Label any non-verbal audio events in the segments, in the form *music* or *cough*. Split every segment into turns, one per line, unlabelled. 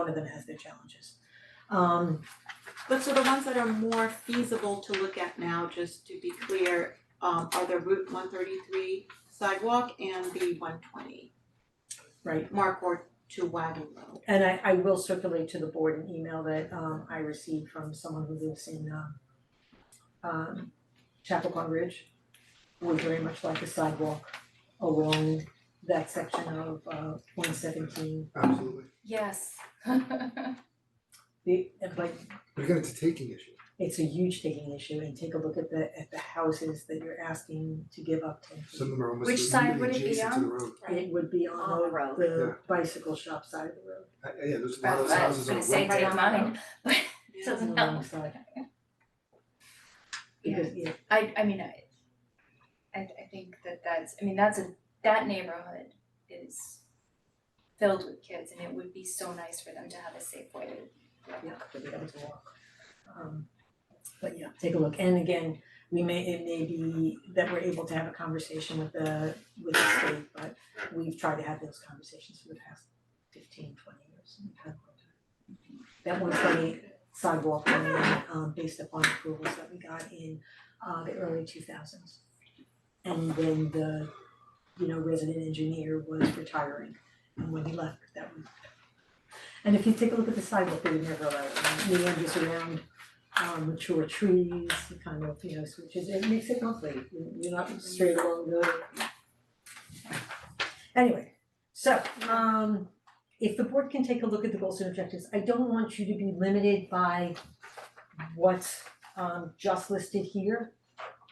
one of them has their challenges. Um,
But so the ones that are more feasible to look at now, just to be clear, um are the Route one thirty three sidewalk and the one twenty
right,
Mark Ward to Wagon Road.
and I I will circulate to the board an email that um I received from someone who lives in uh um Chapacua Ridge. Would very much like a sidewalk along that section of uh one seventeen,
Absolutely.
Yes. *laughs*
the, like,
But again, it's a taking issue.
it's a huge taking issue and take a look at the at the houses that you're asking to give up ten feet.
Some of them are almost
Which side would
immediately
it be
adjacent to
on?
the road.
It would be
On the
on
road.
the
Yeah.
the bicycle shop side of the road,
I- I- Uh, Yeah, there's a lot
That's
of
what I was
houses on
gonna
the
say,
road.
take mine.
Yeah.
it's on the
*laughs* No.
wrong side. Because yeah,
I I mean, I I I think that that's, I mean, that's a, that neighborhood is filled with kids and it would be so nice for them to have a safe way to
yeah, to be able to walk. Um, but yeah, take a look, and again, we may, it may be that we're able to have a conversation with the, with the state, but we've tried to have those conversations for the past 15, 20 years, and we've had one. That one twenty sidewalk plan, um, based upon approvals that we got in, uh, the early two thousands. And then the, you know, resident engineer was retiring, and when he left, that was And if you take a look at the sidewalk, they would never allow it, meanders around um mature trees, the kind of, you know, switches, it makes it lovely, You- you're not straight along the. Anyway, so um if the board can take a look at the goals and objectives, I don't want you to be limited by what's um just listed here.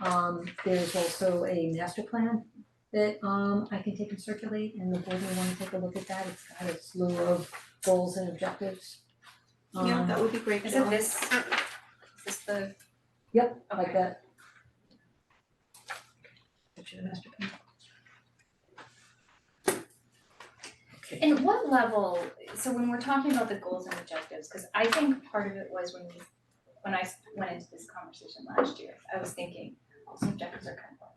Um there's also a master plan that um I can take and circulate and the board may wanna take a look at that, it's got a slew of goals and objectives.
Yeah,
um,
that would be great.
Is
Bill.
it this, is this the?
Yep, like
Okay,
that. Picture the master plan. Okay.
and what level, so when we're talking about the goals and objectives, cause I think part of it was when we, when I s- went into this conversation last year, I was thinking, goals and objectives are kind of like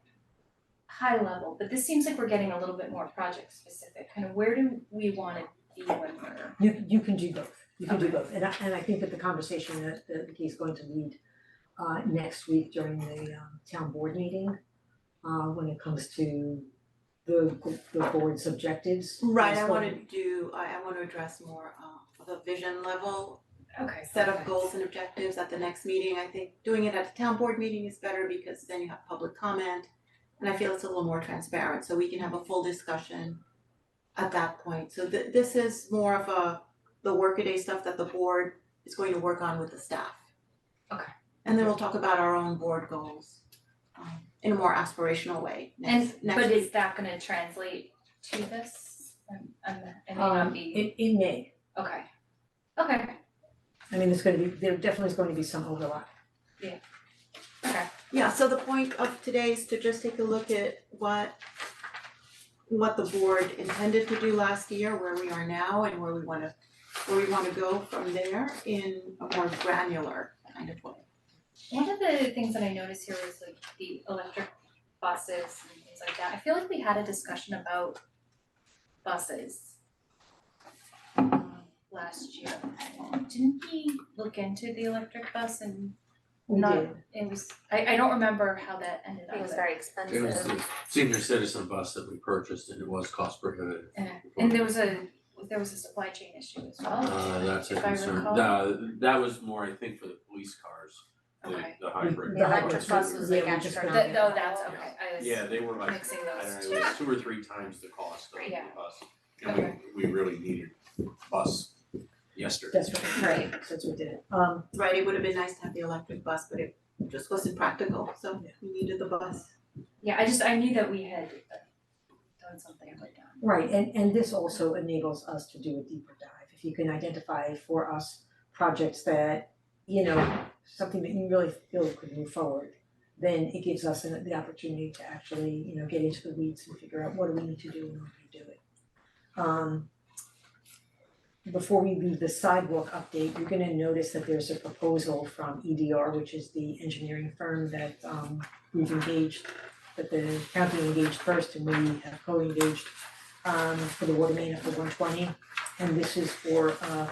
high level, but this seems like we're getting a little bit more project specific, kind of where do we wanna be when we're,
You you can do both, you can do
Okay.
both, and I and I think that the conversation that that he's going to lead uh next week during the um town board meeting, uh when it comes to the g- the board's objectives.
Right, I
is
wanna
going-
do, I I wanna address more uh of a vision level
okay.
set of
okay.
goals and objectives at the next meeting. I think doing it at the town board meeting is better because then you have public comment. And I feel it's a little more transparent, so we can have a full discussion at that point. So th- this is more of a, the workaday stuff that the board is going to work on with the staff.
Okay.
And then we'll talk about our own board goals um in a more aspirational way
And,
next next
but
week.
is that gonna translate to this? Um, um, I may not
Um
be,
it it may,
okay, okay,
I mean, there's gonna be, there definitely is going to be some overlap.
okay,
Yeah, so the point of today is to just take a look at what what the board intended to do last year, where we are now and where we wanna where we wanna go from there in a more granular kind of way.
One of the things that I noticed here was like the electric buses and things like that. I feel like we had a discussion about buses um, last year. Didn't we look into the electric bus and
We
Not-
did,
it was, I I don't remember how that ended up.
It was
but-
very
It was
expensive.
the senior citizen bus that we purchased and it was cost prohibitive.
Yeah. eh, And there was a, there was a supply chain issue as well,
Uh, that's a
if I
concern.
recall.
No, that was more, I think, for the police cars,
Okay.
the the hybrid.
The
The
electric
electric bus
buses,
was
yeah,
like
we just
astronomical.
That, oh, that's okay, I was
Yeah, they were like,
mixing
I
those
don't
two.
know, it was two or three times the cost of the
Yeah.
bus. And we we really needed bus yesterday.
that's right,
Right,
since we did it, um
Right, it would have been nice to have the electric bus, but it just wasn't practical, so we needed the bus.
Yeah, I just, I knew that we had done something like that.
Right, and and this also enables us to do a deeper dive, if you can identify for us projects that, you know, something that you really feel could move forward, then it gives us an- the opportunity to actually, you know, get into the weeds and figure out what do we need to do in order to do it. Um before we leave the sidewalk update, you're gonna notice that there's a proposal from EDR, which is the engineering firm that um we've engaged, that the county engaged first and we have co-engaged um for the water main up to one twenty. And this is for uh